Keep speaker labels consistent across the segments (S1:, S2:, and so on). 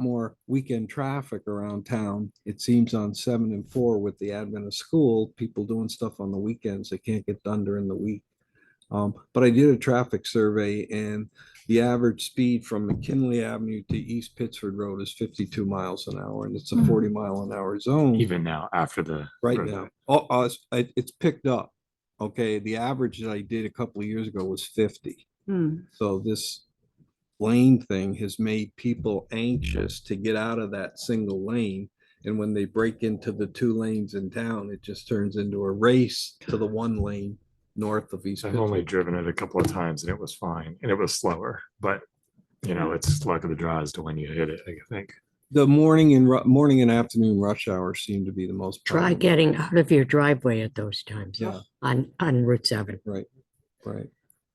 S1: more weekend traffic around town. It seems on seven and four with the advent of school, people doing stuff on the weekends they can't get done during the week. Um, but I did a traffic survey and the average speed from McKinley Avenue to East Pittsford Road is fifty-two miles an hour and it's a
S2: Mhm.
S1: forty mile an hour
S3: Mm.
S1: zone
S4: even now after the.
S1: right
S4: for the-
S1: now. Oh, uh, it's- it- it's picked up. Okay, the average that I did a couple of years ago was fifty.
S2: Hmm.
S1: So this lane thing has made people anxious to get out of that single lane. And when they break into the two lanes in town, it just turns into a race to the one lane north of East
S4: I've only
S1: Pittsburgh.
S4: driven it a couple of times and it was fine and it was slower, but you know, it's luck of the draw as to when you hit it, I think.
S1: The morning and ru- morning and afternoon rush hour seem to be the most.
S5: Try
S1: problematic.
S5: getting out of your driveway at those times
S1: Yeah.
S5: on, on Route 7.
S1: Right.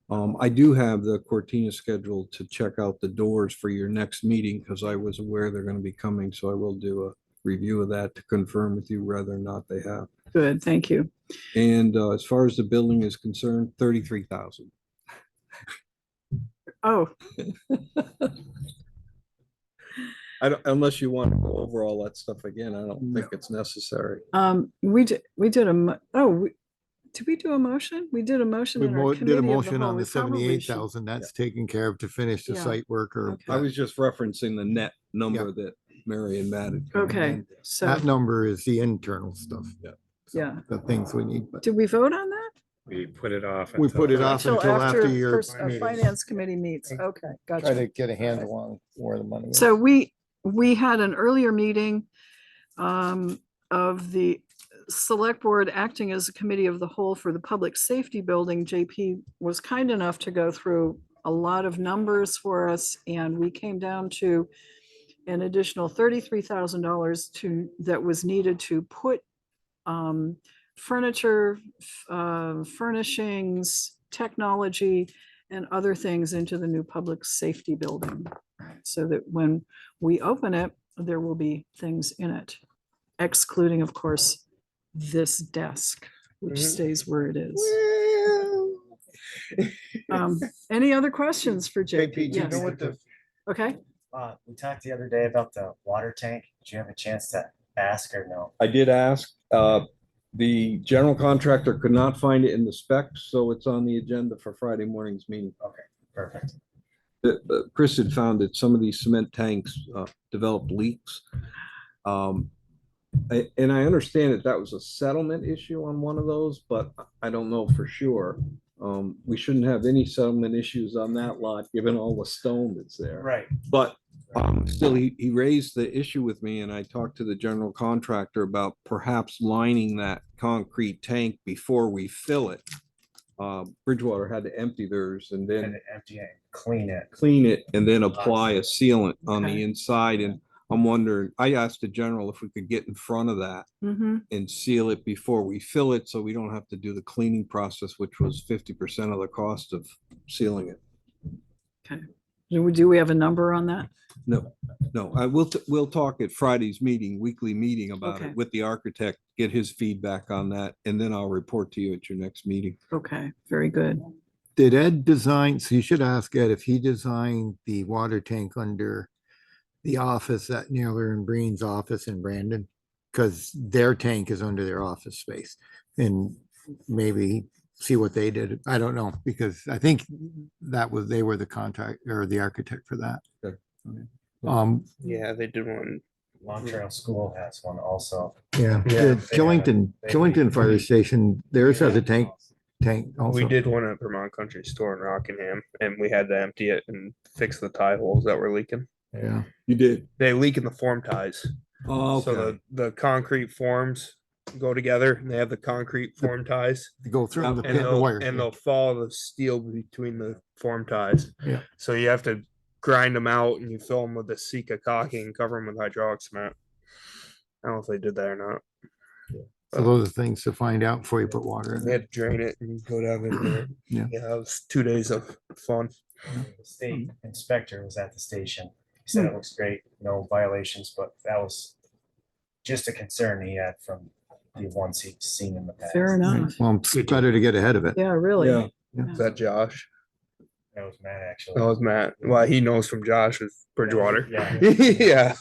S1: Um, I do have the Cortina scheduled to check out the doors for your next meeting because I was aware they're going to be coming, so I will do a review of that to confirm with you whether or not they have.
S2: Good, thank you.
S1: And uh, as far as the building is concerned, thirty-three thousand.
S2: Oh,
S1: I don't, unless you want to go over all that stuff again, I don't think it's necessary.
S2: um, we did, we did a, mo- oh, we- did we do a motion? We did a motion.
S3: We
S2: in our
S3: mo-
S2: committee
S3: did a
S2: of the
S3: motion
S2: whole.
S3: on
S2: We
S3: the
S2: probably
S3: seventy-eight
S2: should-
S3: thousand, that's taken care of to finish the
S2: Yeah.
S3: site worker.
S2: Okay.
S1: I
S3: but
S1: was just referencing the net number that Mary and Matt had.
S2: Okay, so,
S3: That number is the internal stuff.
S1: Yeah.
S3: So,
S2: Yeah.
S3: The things we need, but
S2: did we vote on that?
S4: We put it off.
S3: We put it
S4: until-
S3: off.
S2: Till
S3: until after your
S2: first- uh,
S3: meeting.
S2: Finance committee meets, okay,
S3: try
S2: gotcha.
S3: to get a handle on where the money is.
S2: So we, we had an earlier meeting um, of the select board acting as a committee of the whole for the public safety building. JP was kind enough to go through a lot of numbers for us and we came down to an additional thirty-three thousand dollars to, that was needed to put um, furniture, f- uh, furnishings, technology, and other things into the new public safety building so that when we open it, there will be things in it, excluding, of course, this desk, which stays where it is. Um, Any other questions for
S6: JP,
S2: JP?
S6: do you know
S2: Yes,
S6: what the,
S2: okay.
S6: uh, we talked the other day about the water tank. Did you have a chance to ask or no?
S1: I did ask, uh, the general contractor could not find it in the specs, so it's on the agenda for Friday morning's meeting.
S6: Perfect.
S1: Uh, uh, Chris had found that some of these cement tanks, uh, developed leaks. Um, I- and I understand that that was a settlement issue on one of those, but I don't know for sure. Um, we shouldn't have any settlement issues on that lot, given all the stone that's there.
S6: Right.
S1: But um, still, he, he raised the issue with me and I talked to the general contractor about perhaps lining that concrete tank before we fill it. Uh, Bridgewater had to empty theirs and
S6: And
S1: then
S6: empty it, clean it.
S1: clean it and then apply a sealant on the
S2: Okay.
S1: inside. And I'm wondering, I asked the general if we could get in front of that
S2: Mm-hmm.
S1: and seal it before we fill it, so we don't have to do the cleaning process, which was fifty percent of the cost of sealing it.
S2: Do we, do we have a number on that?
S1: No, I will, t- we'll talk at Friday's meeting, weekly meeting about
S2: Okay.
S1: it with the architect, get his feedback on that, and then I'll report to you at your next meeting.
S2: Okay, very good.
S3: Did Ed design, so you should ask Ed if he designed the water tank under the office at Naylor and Breen's office in Brandon? Because their tank is under their office space and maybe see what they did. I don't know, because I think that was, they were the contact or the architect for that.
S1: Sure. Okay.
S3: Um,
S7: Yeah, they did one.
S6: Long Trail School has one also.
S3: yeah,
S7: Yeah,
S3: the
S6: they had a-
S3: Killington,
S6: they-
S3: Killington Fire Station, theirs has a tank, tank
S7: We
S3: also.
S7: did one at Vermont Country Store in Rockingham, and we had to empty it and fix the tie holes that were leaking.
S3: Yeah,
S1: You did?
S7: They leak in the form ties.
S1: Oh,
S7: So the,
S1: okay.
S7: the concrete forms go together, and they have the concrete form ties,
S3: they go through the
S7: Um, and
S3: pin- the
S7: they'll,
S3: wire.
S7: and they'll follow the steel between the form ties.
S3: Yeah.
S7: So you have to grind them out, and you fill them with the Sika caulking and cover them with hydraulic cement. I don't know if they did that or not.
S3: So those are things to find out before you put water in
S7: They
S3: it.
S7: had to drain it and go down in there.
S3: Yeah.
S7: Yeah, it was two days of fun.
S6: The state
S2: Mm-hmm.
S6: inspector was at the station. He said
S2: Mm.
S6: it looks great, no violations, but that was just a concern he had from the ones he'd seen in the past.
S2: Fair enough.
S3: Right, Well, it's better to get ahead of it.
S2: Yeah,
S1: Yeah,
S2: really.
S7: Is that Josh?
S6: That was Matt, actually.
S7: That was Matt. Well, he knows from Josh with Bridgewater.
S6: Yeah.
S7: yeah.